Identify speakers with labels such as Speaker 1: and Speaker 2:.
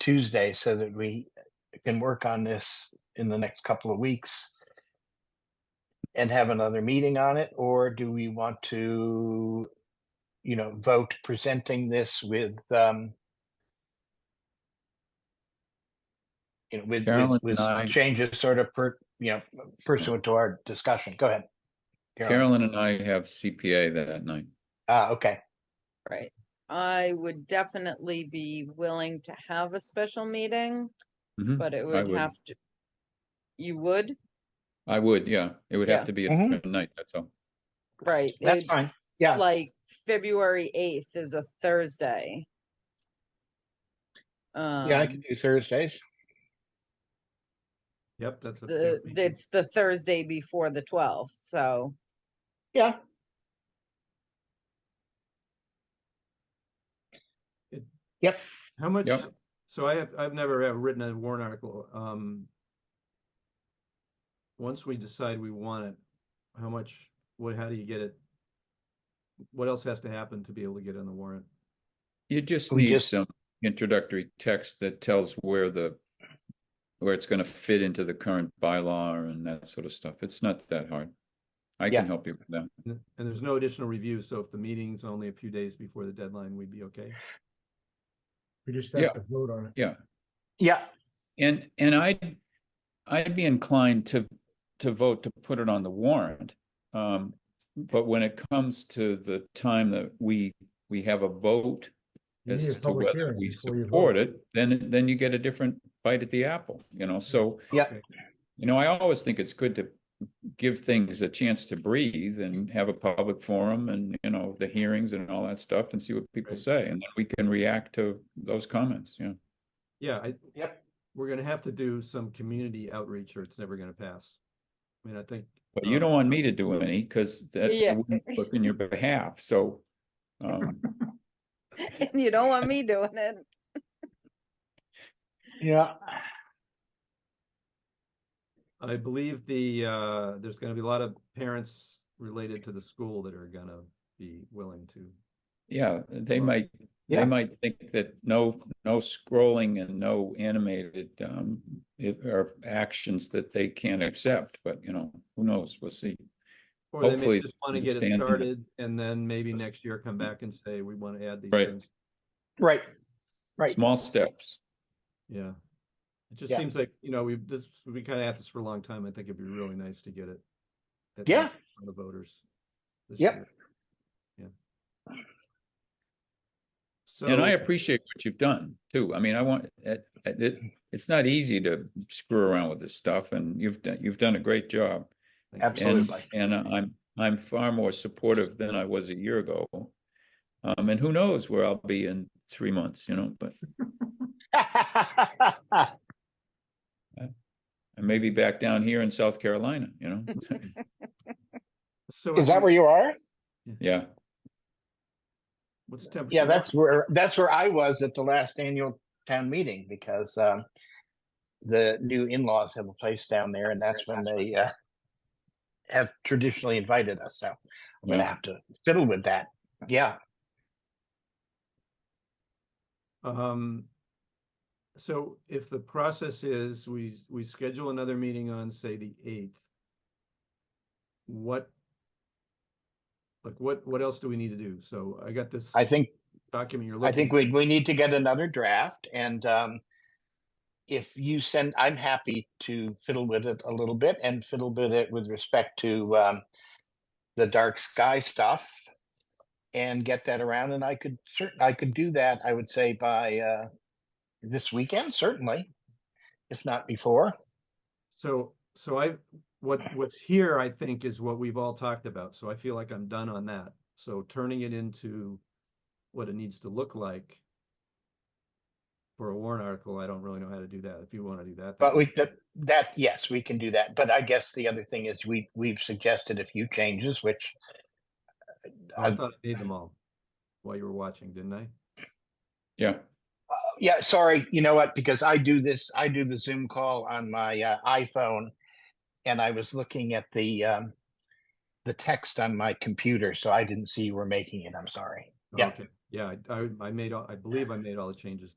Speaker 1: Tuesday so that we can work on this in the next couple of weeks and have another meeting on it, or do we want to, you know, vote presenting this with, um, you know, with,
Speaker 2: Carolyn
Speaker 1: with, with
Speaker 2: and I-
Speaker 1: changes sort of per, you know, pursuant to our discussion. Go ahead. Carolyn.
Speaker 2: Carolyn and I have CPA that night.
Speaker 1: Ah, okay.
Speaker 3: Right. I would definitely be willing to have a special meeting,
Speaker 1: Mm,
Speaker 2: Mhm.
Speaker 3: but it would
Speaker 2: would.
Speaker 3: have to. You would?
Speaker 2: I would, yeah, it would
Speaker 3: Yeah.
Speaker 2: have to be
Speaker 1: Mhm.
Speaker 2: at night, that's all.
Speaker 3: Right. it
Speaker 1: That's
Speaker 3: would-
Speaker 1: fine. Yeah.
Speaker 3: Like February eighth is a Thursday.
Speaker 1: Yeah, I
Speaker 3: Um,
Speaker 1: can do Thursdays.
Speaker 4: Yep,
Speaker 3: it's
Speaker 4: that's. a
Speaker 3: the,
Speaker 4: big meeting.
Speaker 3: it's the Thursday before the twelfth, so.
Speaker 1: Yeah.
Speaker 4: It-
Speaker 1: Yep.
Speaker 4: How much,
Speaker 2: Yep.
Speaker 4: so I have, I've never uh, written a warrant article, um. Once we decide we want it, how much, what, how do you get it? What else has to happen to be able to get on the warrant?
Speaker 2: You just
Speaker 1: We
Speaker 2: need
Speaker 1: just-
Speaker 2: some introductory text that tells where the, where it's gonna fit into the current bylaw and that sort of stuff. It's not that hard. I
Speaker 1: Yeah.
Speaker 2: can help you with that.
Speaker 4: And and there's no additional review, so if the meeting's only a few days before the deadline, we'd be okay.
Speaker 5: We just
Speaker 2: Yeah.
Speaker 5: have to vote on it.
Speaker 1: Yeah.
Speaker 2: And, and I'd, I'd be inclined to, to vote to put it on the warrant. Um, but when it comes to the time that we, we have a vote
Speaker 5: You need
Speaker 2: as
Speaker 5: a
Speaker 2: to
Speaker 5: public
Speaker 2: whether
Speaker 5: hearing
Speaker 2: we
Speaker 5: before you
Speaker 2: support
Speaker 5: vote.
Speaker 2: it, then, then you get a different bite at the apple, you know, so.
Speaker 1: Yeah.
Speaker 4: Okay.
Speaker 2: You know, I always think it's good to give things a chance to breathe and have a public forum and, you know, the hearings and all that stuff and see what people
Speaker 4: Right.
Speaker 2: say. And then we can react to those comments, you know.
Speaker 4: Yeah, I.
Speaker 1: Yep.
Speaker 4: We're gonna have to do some community outreach or it's never gonna pass. I mean, I think.
Speaker 2: But you
Speaker 4: um,
Speaker 2: don't want me to do any because that I
Speaker 3: Yeah.
Speaker 2: wouldn't work in your behalf, so. um,
Speaker 3: And you don't want me doing it.
Speaker 1: Yeah.
Speaker 4: I believe the, uh, there's gonna be a lot of parents related to the school that are gonna be willing to.
Speaker 2: Yeah, they might,
Speaker 1: Yeah.
Speaker 2: they might think that no, no scrolling and no animated um, it are actions that they can't accept, but you know, who knows? We'll see.
Speaker 4: Or they
Speaker 2: Hopefully
Speaker 4: may just wanna get it
Speaker 2: understand that.
Speaker 4: started and then maybe next year come back and say, we wanna add these
Speaker 2: Right.
Speaker 4: things.
Speaker 1: Right. Right.
Speaker 2: Small steps.
Speaker 4: Yeah. It just
Speaker 1: Yeah.
Speaker 4: seems like, you know, we've, this, we kinda at this for a long time. I think it'd be really nice to get it. at
Speaker 1: Yeah.
Speaker 4: least from The voters. this
Speaker 1: Yep.
Speaker 4: year. Yeah.
Speaker 2: And I
Speaker 4: So-
Speaker 2: appreciate what you've done too. I mean, I want, it, it, it's not easy to screw around with this stuff and you've done, you've done a great job.
Speaker 4: Thank you.
Speaker 2: And,
Speaker 1: Absolutely.
Speaker 2: and I'm, I'm far more supportive than I was a year ago. Um, and who knows where I'll be in three months, you know, but I may be back down here in South Carolina, you know?
Speaker 4: So
Speaker 1: Is
Speaker 4: if
Speaker 1: that
Speaker 4: we-
Speaker 1: where you are?
Speaker 2: Yeah,
Speaker 4: What's the temperature?
Speaker 1: Yeah, that's where, that's where I was at the last annual town meeting because, um, the new in-laws have a place down there and that's when they, uh, have traditionally invited us. So I'm going to
Speaker 2: Yeah.
Speaker 1: have to fiddle with that. Yeah.
Speaker 4: Um, so if the process is we, we schedule another meeting on, say, the eighth. What? Like what, what else do we need to do? So I got this
Speaker 1: I think
Speaker 4: document you're looking.
Speaker 1: I think we we need to get another draft and um if you send I'm happy to fiddle with it a little bit and fiddle with it with respect to um the dark sky stuff and get that around and I could certain I could do that I would say by uh this weekend certainly if not before
Speaker 4: So, so I, what, what's here, I think, is what we've all talked about, so I feel like I'm done on that. So turning it into what it needs to look like for a warrant article, I don't really know how to do that. If you want to do that.
Speaker 1: but
Speaker 4: that's-
Speaker 1: we that, that yes we can do that but I guess the other thing is we we've suggested a few changes which
Speaker 4: Oh,
Speaker 1: I-
Speaker 4: I thought I made them all while you were watching, didn't I?
Speaker 2: yeah.
Speaker 1: Uh, yeah sorry you know what because i do this i do the zoom call on my uh, iphone and i was looking at the um the text on my computer so i didn't see you were making it i'm sorry
Speaker 4: Oh,
Speaker 1: Yeah.
Speaker 4: Okay, yeah, I, I, I made all, I believe I made all the changes